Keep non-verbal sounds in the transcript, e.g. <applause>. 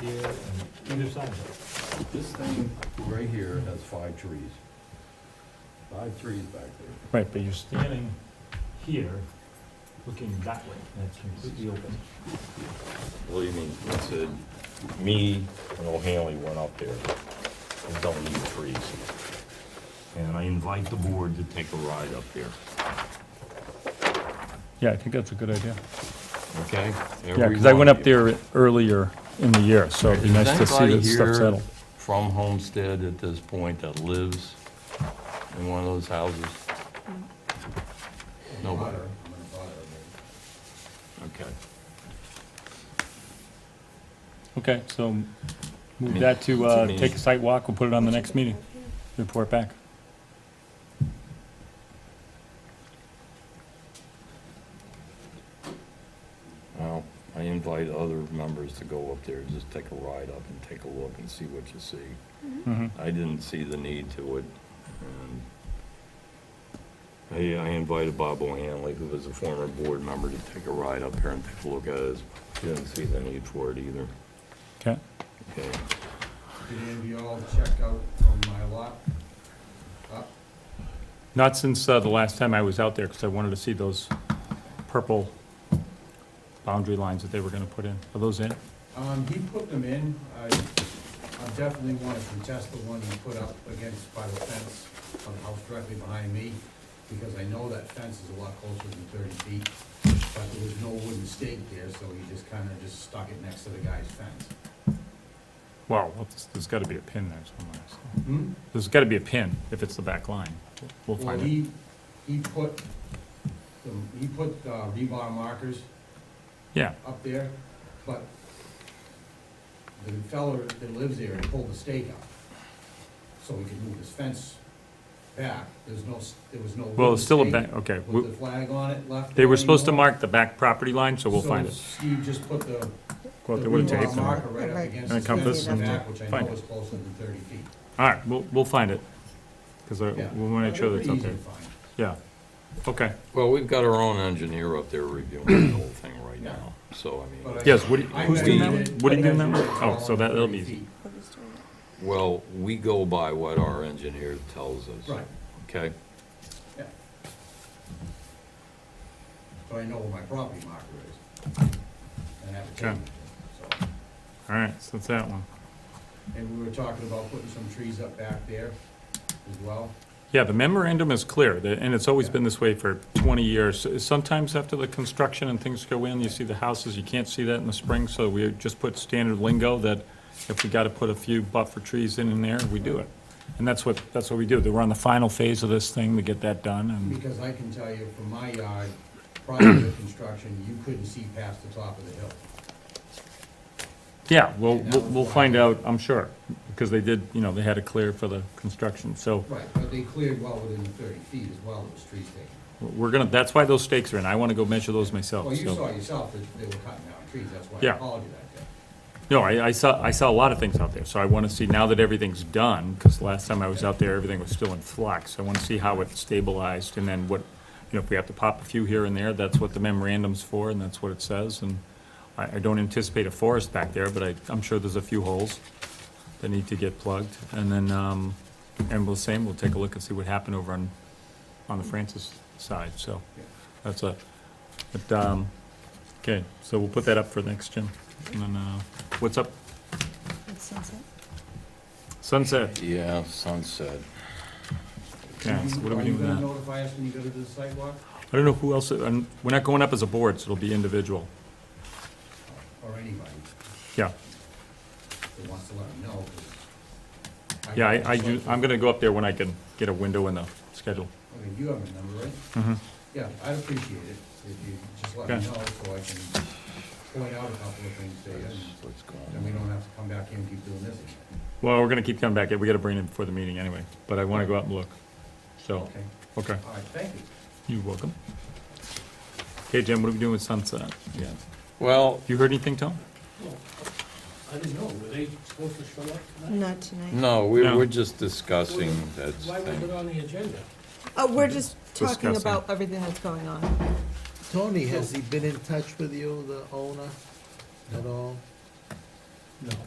here and either side of This thing right here has five trees. Five trees back there. Right, but you're, it. Standing here, looking that way, and it's completely open. believe me, it said, me and O'Hanley went up there and don't leave trees. And I invite the board to take a ride up there, Yeah, I think that's a good idea. okay? Yeah, because I went up Everyone. there earlier in the year, so it'd be Is nice to see anybody that stuff here settled. From Homestead at this point that lives in one of those houses? Mm. Nobody, okay. Okay, so move Me- that to, uh, me. take a site walk, we'll put it on the next meeting, report back. Well, I invite other members to go up there, just take a ride up and take a look and see what you see. Mhm. Mm-hmm. I didn't see the need to it. and um, I I invited Bob O'Hanley, who was a former board member, to take a ride up here and take a look at it. He Didn't see the need for it either. Okay, Okay. Did Andy all check out on my lot? Uh, Up? not since, uh, the last time I was out there, because I wanted to see those purple boundary lines that they were gonna put in. Are those in? Um, he put them in, I, I definitely wanna contest the one he put up against by the fence on the house directly behind me, because I know that fence is a lot closer than thirty feet, but there was no wooden stake there, so he just kinda just stuck it next to the guy's fence. Well, what's- there's gotta be a pin there somewhere. so- Hmm? There's gotta be a pin if it's the back line. We'll Well, find it. he, he put, the- he put, uh, rebar markers Yeah, up there, but the fella that lives there pulled the stake out, so he could move his fence back. There's no, s- there was no. well, it's still a wooden back, stake okay. With we- the flag on it left. They there were supposed to anymore. mark the back property line, so we'll find it. So Steve just put the, the Well, they would've rebar taped them. marker right up Right. against And his it comes fence this in the way. back, which I Find know it. is closer than thirty feet. All right, we'll, we'll find it, because we Yeah. want to make sure that's Pretty up easy there. to find. Yeah, okay. Well, we've got our own engineer up there reviewing <clears throat> the whole thing right now, so I mean, But I- Yes, Woody- I who's doing that measured one? it, Woody I doing that measured one? it all Oh, so on that- that'll 30 be easy. feet. well, we go by what our engineer tells us. Right, Okay? yeah. So I know where my property marker is. And I have to Okay. change it, so. All right, so that's that one. And we were talking about putting some trees up back there as well. Yeah, the memorandum is clear, the- and it's always been this way for 20 years. Sometimes after the construction and things go in, you see the houses, you can't see that in the spring, so we just put standard lingo that if we got to put a few buffer trees in and there, we do it. And that's what, that's what we do. We're on the final phase of this thing to get that done, and, Because I can tell you from my yard, prior to the construction, you couldn't see past the top of the hill. yeah, we'll, we'll we'll find out, I'm sure, because they did, you know, they had it clear for the construction, so. Right, but they cleared well within the thirty feet as well, those trees taken. We're gonna, that's why those stakes are in, I wanna go measure those myself, Well, you so- saw yourself that they were cutting down trees, that's why Oh, Yeah. I called you that day. No, I, I saw, I saw a lot of things out there, so I wanna see, now that everything's done, cause last time I was out there, everything was still in flux, I wanna see how it stabilized, and then what, you know, if we have to pop a few here and there, that's what the memorandum's for, and that's what it says, and I, I don't anticipate a forest back there, but I, I'm sure there's a few holes that need to get plugged, and then, um, and we'll same, we'll take a look and see what happened over on, on the Francis side, so, that's a, but, um, okay, so we'll put that up for next, Jim, and then, uh, what's up Sunset, Yeah, sunset. yeah, so what are we doing with Are you that? gonna notify us when you go to the sidewalk, I don't know who else, uh, and we're not going up as a board, so it'll be individual. or anybody Yeah, that wants to let them know? 'cause yeah, I, I do, I'm gonna go up there when I can get a window in the schedule. Okay, you have my number, right? Mhm. Yeah, I'd appreciate it if you just let me Okay. know so I can point out a couple of things there and What's going then we don't have to come back here and keep doing this again. Well, we're gonna keep coming back, we gotta bring it before the meeting anyway, but I wanna go out and look, so, Okay, okay, all right, thank you. you're welcome. Okay, Jim, what are we doing with Sunset? Yeah. Well, You heard anything, Tom? I didn't know, were they supposed to show up tonight? Not tonight. no, we No. we're just discussing that Why was it thing. on the agenda? Oh, we're just talking Discussing. about everything that's going on. Tony, has he been in touch with you, the owner, at all?